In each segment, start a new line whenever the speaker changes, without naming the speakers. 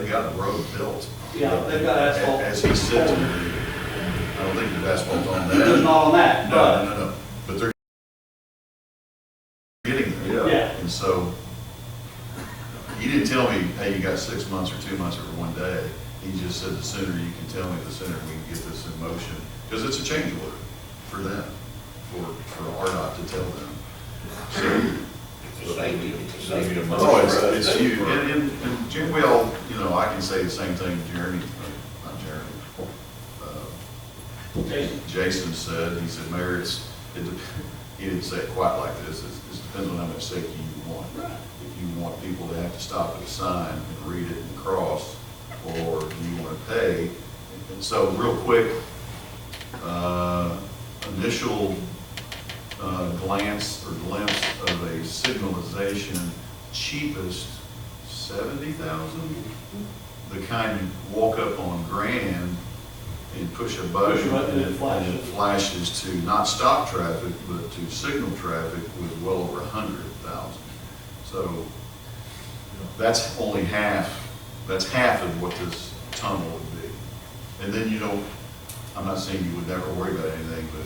got the road built.
Yeah, they've got asphalt.
As he sits, in there, I don't think there's asphalt on that.
There's not on that,
No,
but,
no, no, no, but they're getting there,
Yeah.
yeah. And so, you didn't tell me, hey, you got six months or two months or one day. He just said, the sooner you can tell me, the sooner we can get this in motion. Because it's a change order for them, for, for RDOT to tell them. So,
It's the same, it's the same.
Oh, it's, it's you, and, and, and Jim, we all, you know, I can say the same thing Jeremy, uh, not Jeremy, uh,
Jason,
Jason said, he said, Mayor, it's, it, dep- he didn't say it quite like this, it's, it depends on how much safety you want.
Right.
If you want people to have to stop at a sign and read it and cross, or do you wanna pay? And so, real quick, uh, initial, uh, glance or glimpse of a signalization, cheapest seventy thousand? The kind you walk up on Grand and push a button.
Push a button and it flashes.
and it flashes to not stop traffic, but to signal traffic was well over a hundred thousand. So that's only half, that's half of what this tunnel would be. And then you don't, I'm not saying you would never worry about anything, but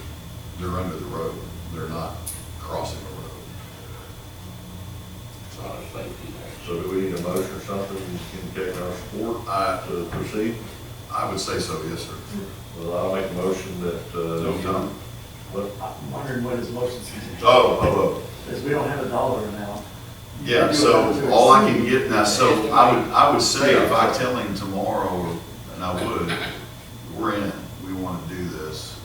they're under the road, they're not crossing the road.
It's not a safety measure.
So do we need a motion or something to indicate our support
I,
to proceed?
I would say so, yes, sir.
Well, I'll make a motion that,
No,
uh,
Tom?
what,
I'm wondering what his motion's
Oh,
gonna
oh, oh.
be, because we don't have a dollar amount.
Yeah, so all I can get now, so I would, I would say if I tell him tomorrow, and I would, we're in, we want to do this,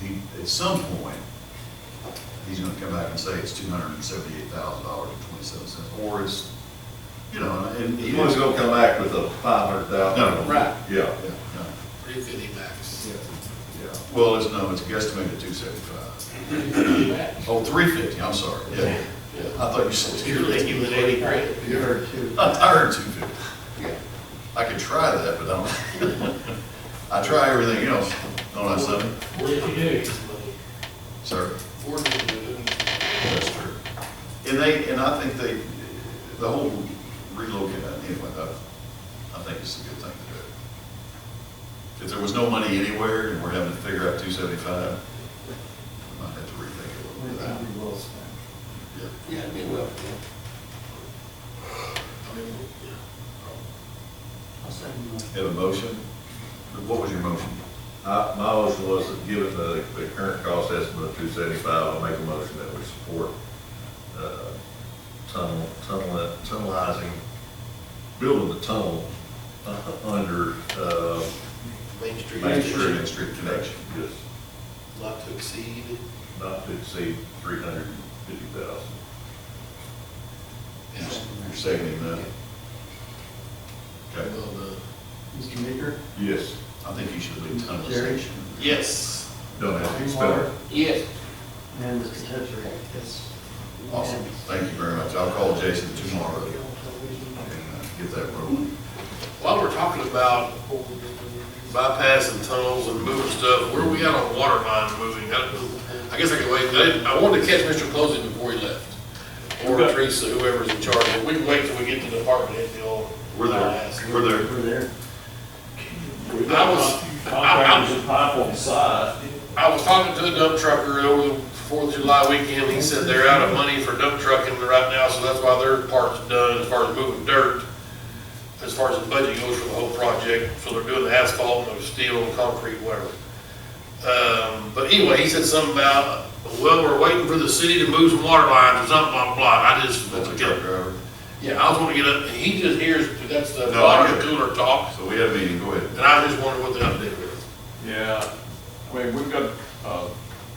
he, he, at some point, he's gonna come back and say it's two hundred and seventy-eight thousand dollars and twenty-seven cents, or it's, you know, and.
he's always gonna come back with a five hundred thousand.
No,
right.
Yeah,
Yeah, no.
Three fifty max.
yeah.
Well, it's, no, it's guesstimated two seventy-five.
Yeah.
Oh, three fifty, I'm sorry, yeah. I thought you said
You're
two fifty.
leaking with eighty grand.
You heard two.
I tired two fifty.
Yeah.
I could try that, but I don't. I try everything else, don't I, son?
What did you do?
Sir?
Four did
That's true. And they, and I think they, the whole relocating, anyway, I, I think it's a good thing to do. If there was no money anywhere and we're having to figure out two seventy-five, I might have to rethink it a
We're
little
gonna
bit.
be well spent.
Yeah.
Yeah, it'd be well.
I'll second that.
Have a motion? What was your motion?
I, my motion was that given the, the current cost estimate of two seventy-five, I make a motion that we support, uh, tunnel, tunnel, tunnelizing, building the tunnel uh, under, uh,
Main Street.
Main Street.
Main Street connection.
yes,
Not to exceed.
not to exceed three hundred and fifty thousand.
You're seconding that? Okay.
Well,
Mr. Meeker?
Yes.
I think you should leave
Jerry?
tunnelization.
the- Yes.
Don't have to spell
Water
it.
Yes.
And Mr. Tetra. Yes.
Awesome, thank you very much. I'll call Jason tomorrow and uh, get that rolling.
While we're talking about bypassing tunnels and moving stuff, where are we at on water line moving? I I guess I could wait, I didn't- I wanted to catch Mr. Posey before he left, or
Okay.
Teresa, whoever's in charge, but we can wait till we get to the department head deal.
We're there, we're there.
Over there.
I was-
Contractors and pipe on the side.
I was talking to a dump trucker over the Fourth of July weekend, he said they're out of money for dump trucking right now, so that's why their part's done as far as moving dirt, as far as the budget goes for the whole project, so they're doing the asphalt, and the steel, and concrete, whatever. Um, but anyway, he said something about, well, we're waiting for the city to move some water lines, or something, blah, blah, blah, and I just,
That's a truck driver.
yeah, I was gonna get up, he just hears, that's the
No, I get
water
it.
cooler talk,
So we have a meeting, go ahead.
and I just wondered what the update was.
Yeah, I mean, we've got a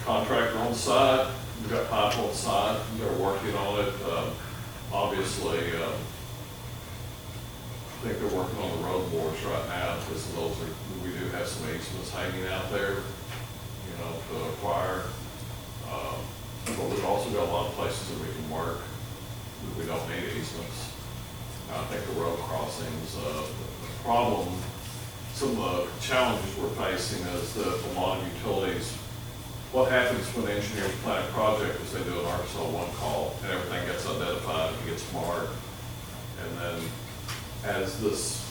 contractor on site, we've got pipe on site, they're working on it. Uh, Obviously, uh, I think they're working on the road boards right now, because those are, we do have some easements hanging out there, you know, to acquire. Um, But we've also got a lot of places that we can work, that we don't need easements. I think the road crossings, uh, the problem, some of the challenges we're facing is that a lot of utilities, what happens when engineers plan a project is they do an Arkansas one call, and everything gets identified, and gets marked. And then as this